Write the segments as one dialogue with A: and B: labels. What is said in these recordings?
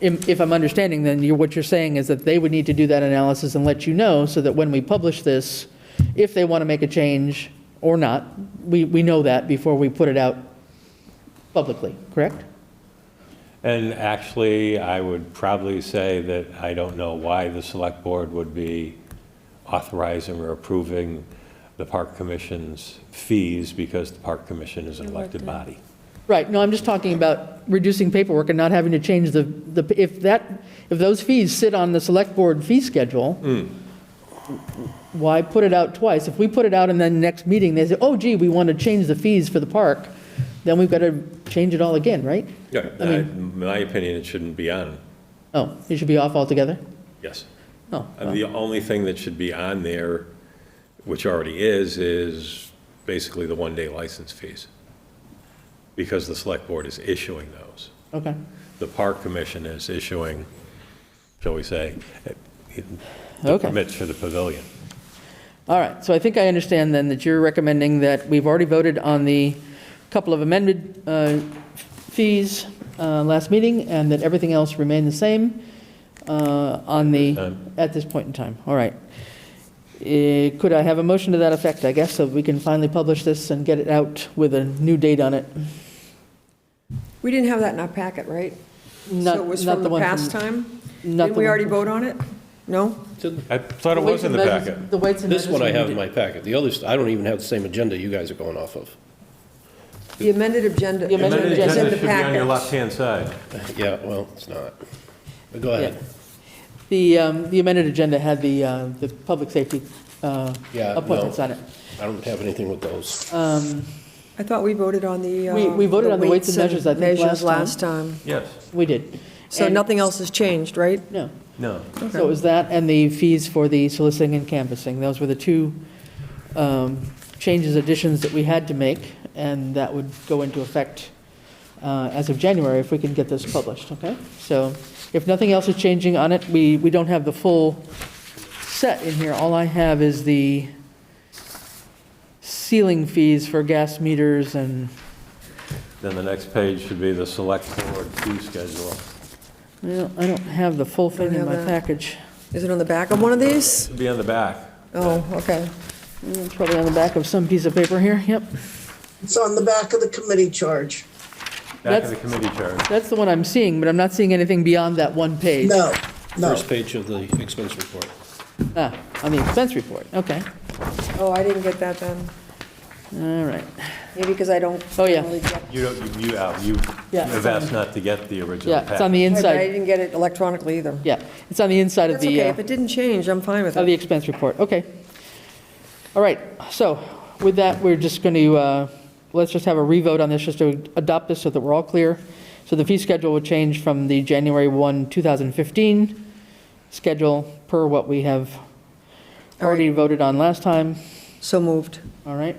A: If if I'm understanding, then you, what you're saying is that they would need to do that analysis and let you know, so that when we publish this, if they want to make a change or not, we, we know that before we put it out publicly, correct?
B: And actually, I would probably say that I don't know why the select board would be authorizing or approving the park commission's fees because the park commission is an elected body.
A: Right, no, I'm just talking about reducing paperwork and not having to change the, the, if that, if those fees sit on the select board fee schedule, why put it out twice? If we put it out and then next meeting, they say, oh gee, we want to change the fees for the park, then we've got to change it all again, right?
B: Yeah,
A: I
B: in my opinion, it shouldn't be on,
A: Oh, it should be off altogether?
B: yes.
A: Oh,
B: Uh, The only thing that should be on there, which already is, is basically the one-day license fees. Because the select board is issuing those.
A: okay,
B: The park commission is issuing, shall we say, the
A: okay.
B: permits for the pavilion.
A: All right, so I think I understand then that you're recommending that we've already voted on the couple of amended uh, fees uh, last meeting, and that everything else remained the same uh, on the,
B: Um,
A: at this point in time. All right. Eh, Could I have a motion to that effect, I guess, so we can finally publish this and get it out with a new date on it?
C: We didn't have that in our packet, right?
A: Not-
C: So it was
A: not
C: from the
A: one
C: past time?
A: not
C: Didn't
A: the
C: we
A: one-
C: already vote on it? No?
B: I thought it was in the
A: Weights and
B: packet.
A: measures- The weights and measures.
D: This one I
A: we
D: have
A: did-
D: in my packet. The others, I don't even have the same agenda you guys are going off of.
C: The amended agenda.
A: The amended
B: Amended
C: it's in
A: agenda
B: agenda
C: the
B: should be on your
C: packet.
B: left-hand side.
D: Yeah, well, it's not. But go
A: yeah.
D: ahead.
A: The um, the amended agenda had the, uh, the public safety uh,
D: Yeah, no.
A: appointments on it.
D: I don't have anything with those.
A: Um,
C: I thought we voted on the. uh,
A: We- we voted on the weights and measures, I think,
C: measures
A: last
C: time.
B: Yes.
A: We did.
C: So
A: And-
C: nothing else has changed, right?
A: No.
B: No.
A: So it was that and the fees for the soliciting and canvassing. Those were the two um, changes, additions that we had to make, and that would go into effect uh, as of January if we can get this published, okay? So if nothing else is changing on it, we, we don't have the full set in here. All I have is the ceiling fees for gas meters and,
B: Then the next page should be the select board fee schedule.
A: well, I don't have the full thing
C: Don't
A: in
C: have
A: my
C: that.
A: package.
C: Is it on the back of one of these?
B: Should be on the back.
C: Oh, okay. Mm.
A: It's Probably on the back of some piece of paper here, yep.
E: It's on the back of the committee charge.
B: Back
A: That's-
B: of the committee chart.
A: That's the one I'm seeing, but I'm not seeing anything beyond that one page.
E: No, no.
D: First page of the expense report.
A: Ah, on the expense report, okay,
C: Oh, I didn't get that then.
A: all right.
C: Maybe because I don't.
A: Oh, yeah.
C: really get-
B: You don't, you, you out, you
A: Yeah, it's
B: have
A: on-
B: asked not to get the original
A: Yeah,
B: packet.
A: it's on the
C: Right, but I
A: inside,
C: didn't get it electronically either.
A: yeah, it's on the inside of
C: That's
A: the,
C: okay,
A: uh,
C: if it didn't change, I'm fine with
A: of the
C: it.
A: expense report, okay. All right, so with that, we're just going to, let's just have a revote on this, just to adopt this so that we're all clear. So the fee schedule would change from the January 1, 2015 schedule per what we have
C: All right.
A: already voted on last time.
C: So moved.
A: All right.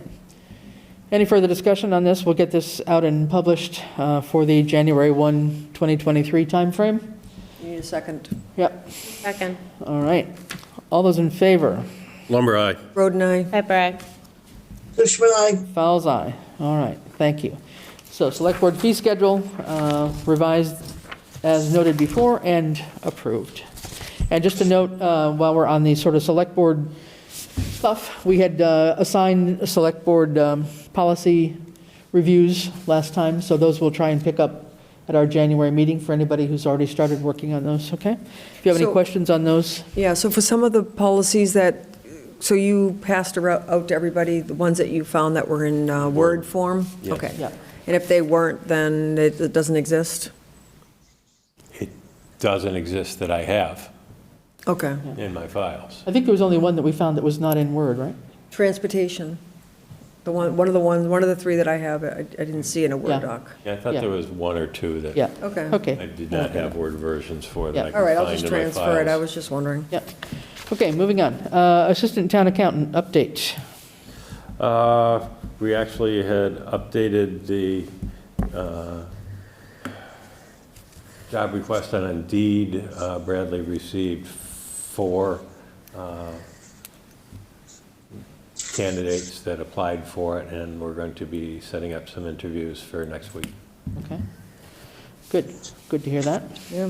A: Any further discussion on this? We'll get this out and published uh, for the January 1, 2023 timeframe?
C: You need a second.
A: Yep,
F: Second.
A: all right. All those in favor?
D: Lumber, aye.
C: Roden, aye.
F: Pepper, aye.
E: Fishman, I,
A: Fowles, aye. All right, thank you. So Select Board fee schedule uh, revised as noted before and approved. And just to note, uh, while we're on the sort of Select Board stuff, we had uh, assigned a Select Board um, policy reviews last time, so those we'll try and pick up at our January meeting for anybody who's already started working on those, okay? If you have any
C: So-
A: questions on those,
C: Yeah, so for some of the policies that, so you passed arou- out to everybody, the ones that you found that were in uh, Word form?
D: Yes.
C: Okay.
A: Yeah.
C: And if they weren't, then it it doesn't exist?
B: It doesn't exist that I have
C: Okay.
B: in my files.
A: I think there was only one that we found that was not in Word, right?
C: Transportation, the one, one of the ones, one of the three that I have, I I didn't see in a
A: Yeah.
C: Word doc.
B: Yeah, I thought
A: Yeah.
B: there was one or two that.
A: Yeah.
C: Okay.
A: Okay.
B: I did not have Word versions for that I
A: Yeah.
C: All right, I'll
B: can
C: just
B: find in my
C: transfer it, I
B: files.
C: was just wondering.
A: Yep. Okay, moving on. Uh, Assistant Town Accountant, update.
B: Uh, We actually had updated the uh, job request on Indeed. Uh, Bradley received four uh, candidates that applied for it, and we're going to be setting up some interviews for next week.
A: Okay.
G: Good, good to hear that.
A: Yeah.